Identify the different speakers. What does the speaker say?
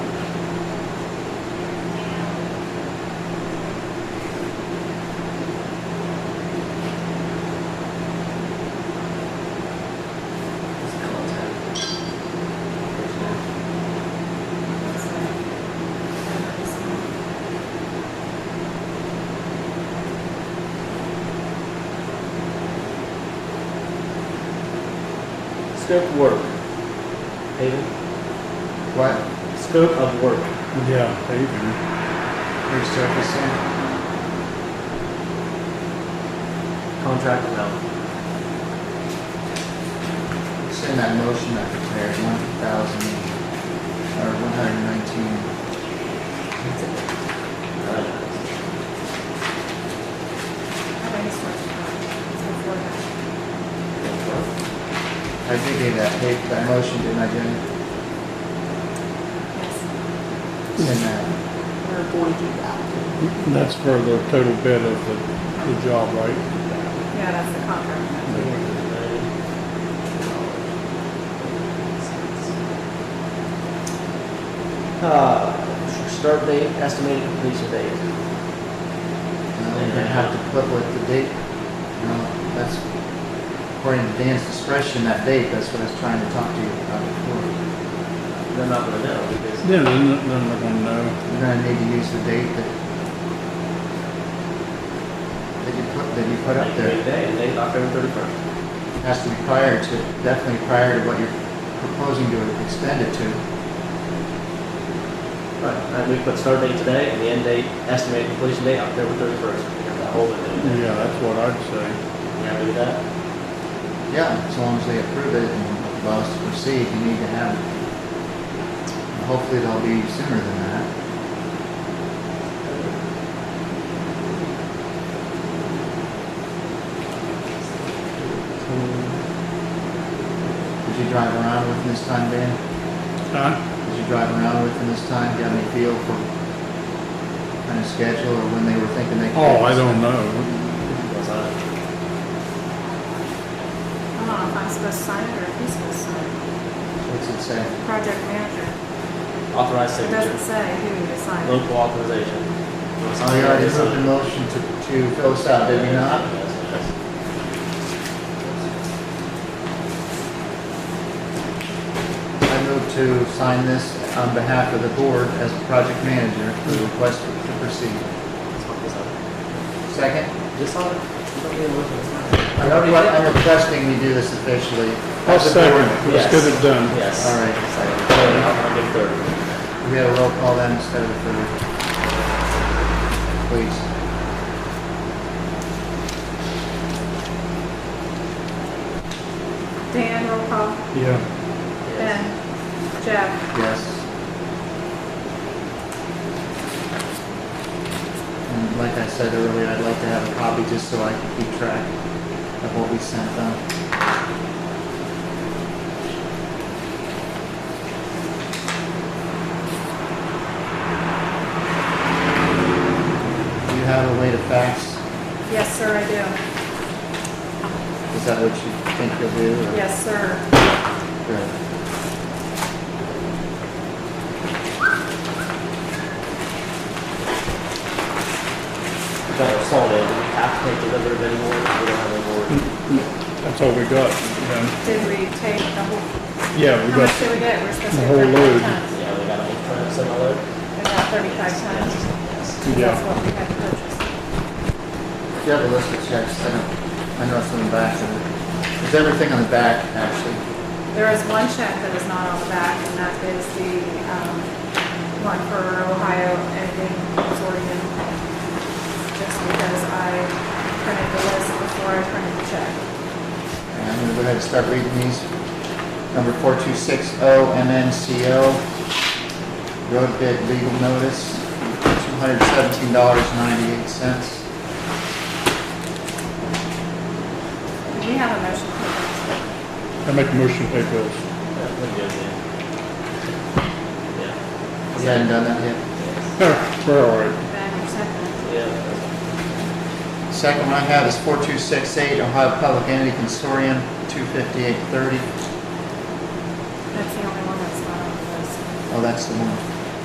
Speaker 1: scope work. Hayden,
Speaker 2: What?
Speaker 1: scope of work.
Speaker 3: Yeah, paving.
Speaker 2: Resurfacing?
Speaker 1: Contract amount.
Speaker 2: It's in that motion I prepared, one thousand, or one hundred and nineteen.
Speaker 4: I just want to know. It's before that.
Speaker 2: I did give that paper, that motion, didn't I, Jenny?
Speaker 4: Yes,
Speaker 2: It's in that.
Speaker 4: we're going to do that.
Speaker 3: That's for the total bid of the, the job, right?
Speaker 4: Yeah, that's the contract.
Speaker 1: Uh, start date, estimated completion date.
Speaker 2: No, We're gonna have to put what the date, no, that's, according to Dan's discretion, that date, that's what I was trying to talk to you about before.
Speaker 1: They're not gonna know because
Speaker 3: Then, then then they're gonna know.
Speaker 2: We're gonna need to use the date that that you put, that you put up there.
Speaker 1: Today, and date October thirty-first.
Speaker 2: has to be prior to, definitely prior to what you're proposing to extend it to.
Speaker 1: Right, and we put start date today and the end date, estimated completion date October thirty-first. We have that whole thing.
Speaker 3: Yeah, that's what I'd say.
Speaker 1: You happy with that?
Speaker 2: Yeah, as long as they approve it and allow us to proceed, you need to have it. Hopefully they'll be sooner than that. Did you drive around with him this time, Dan?
Speaker 3: Huh?
Speaker 2: Did you drive around with him this time? Do you have any feel for kind of schedule or when they were thinking they could?
Speaker 3: Oh, I don't know.
Speaker 1: Was
Speaker 4: I
Speaker 1: I-
Speaker 4: don't know if I'm supposed to sign it or if he's supposed to sign it.
Speaker 2: What's it say?
Speaker 4: Project manager,
Speaker 1: Authorized
Speaker 4: it doesn't
Speaker 1: signature,
Speaker 4: say who to sign it.
Speaker 1: local authorization. Wanna
Speaker 2: Oh,
Speaker 1: sign
Speaker 2: you
Speaker 1: it?
Speaker 2: already
Speaker 1: Sign
Speaker 2: moved
Speaker 1: it.
Speaker 2: the motion to, to fill us out, did you not?
Speaker 1: Yes, yes.
Speaker 2: I moved to sign this on behalf of the board as project manager for the request to proceed.
Speaker 1: Let's fuck this up.
Speaker 2: Second?
Speaker 1: Just on it. You don't need to look at it.
Speaker 2: I'm re- I'm requesting we do this officially.
Speaker 3: I'll second.
Speaker 1: Yes.
Speaker 3: Let's get it done.
Speaker 1: Yes.
Speaker 2: All right.
Speaker 1: Second. Third, I'll give third.
Speaker 2: We have a roll call then instead of a third. Please.
Speaker 4: Dan, roll call.
Speaker 3: Yeah.
Speaker 1: Yes.
Speaker 4: Ben. Jeff.
Speaker 2: Yes. And like I said earlier, I'd like to have a copy just so I can keep track of what we sent them. Do you have a way to fax?
Speaker 4: Yes, sir, I do.
Speaker 2: Is that what you think you'll do? or-
Speaker 4: Yes, sir.
Speaker 2: Good.
Speaker 1: We got our salt in. Do we have to take delivery of any more? We don't have any more.
Speaker 3: That's all we got. Yeah.
Speaker 4: Did we take the whole,
Speaker 3: Yeah, we
Speaker 4: how much
Speaker 3: got,
Speaker 4: did we get? We're supposed to
Speaker 3: The
Speaker 4: get
Speaker 3: whole
Speaker 4: thirty-five
Speaker 3: load.
Speaker 4: tons.
Speaker 1: Yeah, we got an eight ton of similar.
Speaker 4: We got thirty-five tons. So That's
Speaker 3: Yeah.
Speaker 4: what we had to purchase.
Speaker 2: Do you have a list of checks? I don't, I know it's on the back of it. There's everything on the back, actually.
Speaker 4: There is one check that is not on the back, and that is the, um, one for Ohio Ending Consortium. Just because I printed the list before I printed the check.
Speaker 2: And I'm gonna go ahead and start reading these. Number four two six oh O MNCO, road bid legal notice, two hundred seventeen dollars ninety-eight cents.
Speaker 4: Did we have a motion for that?
Speaker 3: I make a motion to pay bills.
Speaker 1: Yeah, we're good then. Yeah.
Speaker 2: We hadn't done that yet.
Speaker 1: Yes.
Speaker 3: Yeah, We're all right.
Speaker 4: Ben, your second.
Speaker 1: Yeah.
Speaker 2: Second one I have is four two six eight Ohio Public Entity Consortium, two fifty-eight thirty.
Speaker 4: That's the only one that's not on the list.
Speaker 2: Oh, that's the one.